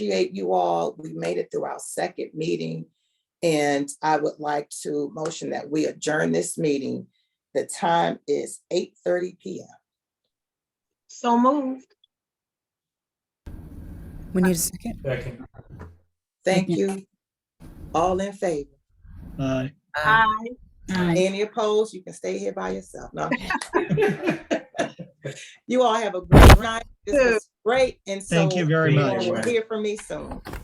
appreciate you all. We made it through our second meeting. And I would like to motion that we adjourn this meeting. The time is eight thirty PM. So moved. We need a second. Second. Thank you. All in favor? Aye. Aye. Any opposed? You can stay here by yourself. No. You all have a great night. This was great. And so Thank you very you much. will Hear from me soon.